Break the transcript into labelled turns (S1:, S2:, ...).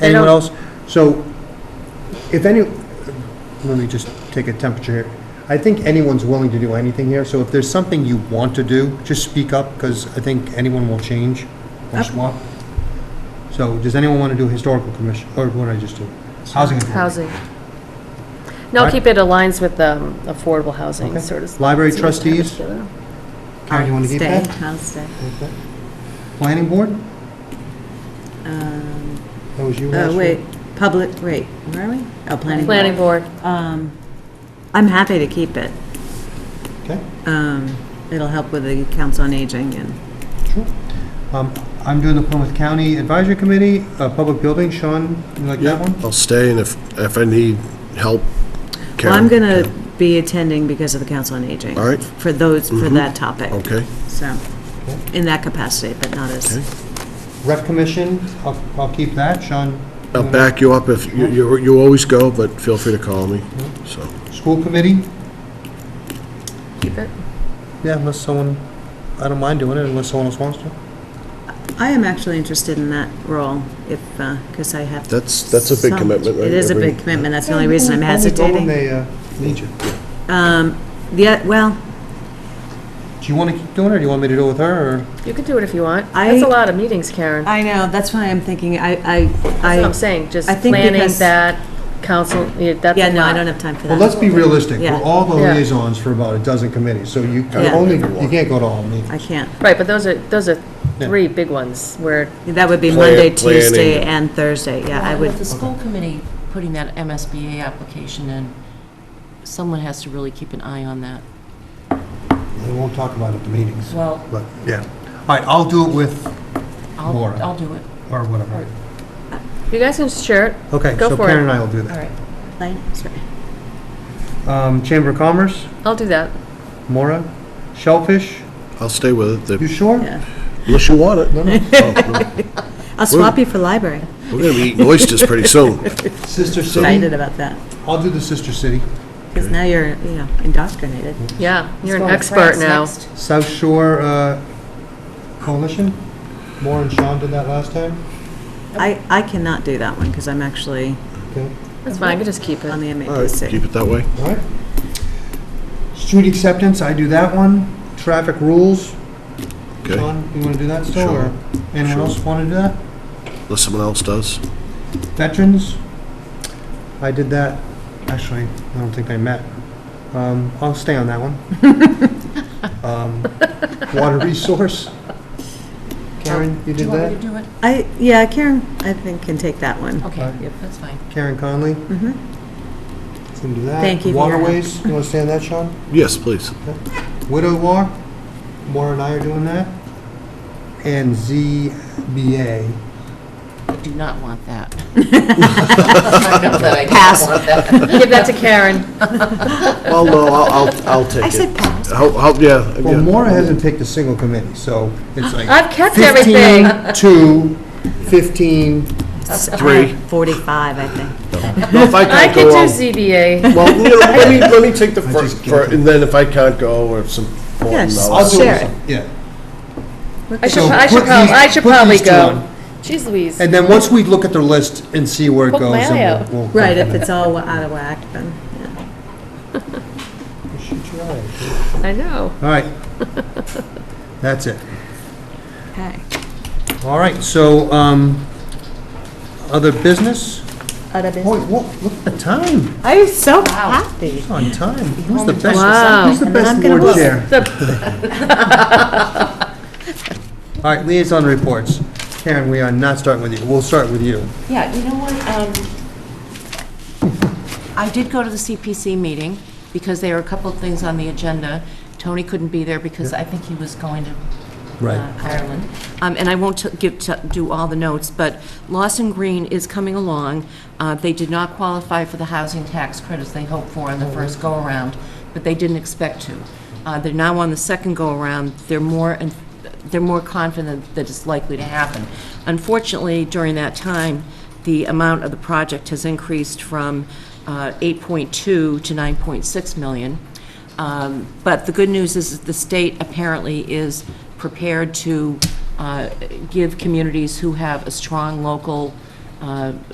S1: Anyone
S2: don't-
S1: else? So if any, let me just take a temperature here. I think anyone's willing to do anything here, so if there's something you want to do, just speak up, because I think anyone will change or
S2: Up.
S1: swap. So does anyone want to do historical commission, or what did I just do? Housing authority?
S2: Housing. No,
S1: Right.
S2: keep it aligns with um, affordable housing,
S1: Okay.
S2: sort of.
S1: Library
S2: sort of tied
S1: trustees?
S2: together.
S1: Karen, you want to keep that?
S3: I'll stay, I'll
S1: Planning board?
S3: stay. Um,
S1: That was you last week?
S3: Oh, wait, public, wait, where are we? Oh, planning.
S2: Planning board,
S3: Um, I'm happy to keep it.
S1: Okay,
S3: Um, It'll help with the council on aging and,
S1: sure. Um, I'm doing the Plymouth County Advisory Committee, uh, Public Building, Sean, you like that one?
S4: I'll stay, and if, if I need help,
S3: well,
S4: Karen.
S3: I'm going to be attending because of the council on aging.
S4: All right. Mm-hmm.
S3: For those, for that topic.
S4: Okay,
S3: So, in that capacity, but not
S4: Okay.
S3: as,
S1: Rep Commission, I'll, I'll keep that, Sean.
S4: I'll back you up if, you, you you always go, but feel free to call me, so.
S1: School Committee?
S2: keep it.
S1: Yeah, unless someone, I don't mind doing it unless someone else wants to.
S3: I am actually interested in that role if, because I have.
S4: That's- that's a big
S3: some-
S4: commitment, right?
S3: It is a
S4: Every-
S3: big commitment. That's the only reason I'm
S1: Only go when
S3: hesitating.
S1: they uh, need you.
S3: Um, Yeah, well,
S1: Do you want to keep doing it, or do you want me to do it with her, or?
S2: You can do it if you want.
S3: I-
S2: That's a lot of meetings, Karen. That's
S3: I know, that's why I'm thinking, I, I,
S2: what I'm
S3: I,
S2: saying, just
S3: I think
S2: planning
S3: because-
S2: that, council, yeah, that's a lot.
S3: yeah, no, I don't have time for
S1: Well,
S3: that.
S1: let's be realistic.
S3: Yeah.
S1: We're all the
S2: Yeah.
S1: liaisons for about a dozen committees, so you can
S3: Yeah.
S1: only, you can't go to all meetings.
S3: I can't.
S2: Right, but those are, those are
S1: Yeah.
S2: three big ones where,
S3: That would be
S4: Plan-
S3: Monday,
S4: planning.
S3: Tuesday, and Thursday, yeah, I
S5: Well,
S3: would,
S5: With the school committee putting that MSBA application in, someone has to really keep an eye on that.
S1: We won't talk about it at the meetings,
S5: Well,
S1: but, yeah. All right, I'll do it with,
S5: I'll,
S1: Laura.
S5: I'll do it.
S1: or whatever.
S2: you guys can just share it.
S1: Okay,
S2: Go
S1: so
S2: for
S1: Karen
S2: it.
S1: and I will do
S5: All
S1: that.
S5: right.
S3: Plan- sorry.
S1: Um, Chamber of Commerce,
S2: I'll do that.
S1: Mora, Shellfish,
S4: I'll stay with it,
S1: you
S4: if-
S1: sure?
S3: Yeah.
S4: unless you want it.
S1: No, no.
S3: I'll swap you for library.
S4: We're gonna be eating oysters pretty soon.
S1: Sister
S3: Excited
S1: City,
S3: about that,
S1: I'll do the Sister City.
S3: because now you're, you know, indoctrinated.
S4: Mm-hmm.
S2: Yeah, you're an
S5: Going to
S2: expert
S5: France
S2: now.
S5: next.
S1: South Shore uh, Coalition, Moore and Sean did that last time.
S3: I, I cannot do that one, because I'm actually
S1: Okay,
S2: That's fine, I can just keep
S3: on
S2: it.
S3: the
S4: All right, keep
S3: MAPC.
S4: it that way.
S1: all right. Street acceptance, I do that one. Traffic rules,
S4: Okay,
S1: Sean, you want to do that still?
S4: Sure.
S1: or Anyone
S4: Sure.
S1: else want to do that?
S4: unless someone else does.
S1: Veterans, I did that, actually, I don't think they met. Um, I'll stay on that one. Um, Water resource, Karen, you
S5: Oh, Do
S1: did
S5: you want me
S1: that?
S5: to do it?
S3: I, yeah, Karen, I think, can take that one.
S1: Okay.
S5: Okay, that's fine.
S1: Karen Conley?
S3: Mhm.
S5: Mm-hmm.
S1: Can do that.
S3: Thank you for your help.
S1: Waterways, you want to stay on that, Sean?
S4: Yes, please.
S1: Widow War, Maura and I are doing that, and ZBA.
S5: I do not want that. I know that I don't want that.
S2: Give that to Karen.
S4: Well, no, I'll, I'll, I'll take it.
S3: I said pass.
S4: How, how, yeah.
S1: Well,
S4: yeah.
S1: Maura hasn't picked a single committee, so it's like
S2: I've kept everything.
S1: 15, 2, 15,
S4: Three.
S3: Forty-five, I think.
S4: No, if I
S2: I
S4: can't
S2: could
S4: go,
S2: do
S4: I'll-
S2: ZBA.
S4: well, you know, let me, let me take the
S1: I
S4: first,
S1: just
S4: fir- and then if I can't go, or if some.
S3: Yes.
S1: I'll do
S3: Share
S1: it. Yeah.
S2: I should,
S1: So
S2: I should
S1: put
S2: prob,
S1: these-
S2: I should
S1: put these
S2: probably
S1: two
S2: go.
S1: on.
S2: Jeez Louise.
S1: And then once we look at the list and see where it
S2: Put
S1: goes,
S2: Mario.
S1: then we'll- we'll.
S3: Right, if it's all out of whack, then, yeah.
S1: Shoot your eye.
S2: I know.
S1: All right. That's it.
S3: Okay.
S1: All right, so, um, other business?
S3: Other
S1: Boy,
S3: business.
S1: whoa, look at the time.
S3: I'm so happy.
S1: On time. Who's the best?
S2: Wow.
S1: Who's the
S3: And then
S1: best
S3: I'm gonna
S1: board
S3: lose.
S1: chair? All right, liaison reports. Karen, we are not starting with you. We'll start with you.
S5: Yeah, you know what, um, I did go to the CPC meeting, because there were a couple of things on the agenda. Tony couldn't be there because I think he was going to
S1: Right.
S5: uh, Ireland. Um, And I won't t- give, t- do all the notes, but Lawson Green is coming along. Uh, They did not qualify for the housing tax credits they hoped for on the first go-around, but they didn't expect to. Uh, They're now on the second go-around, they're more, and they're more confident that it's likely to happen. Unfortunately, during that time, the amount of the project has increased from uh, 8.2 to 9.6 million. Um, But the good news is that the state apparently is prepared to uh, give communities who have a strong local uh,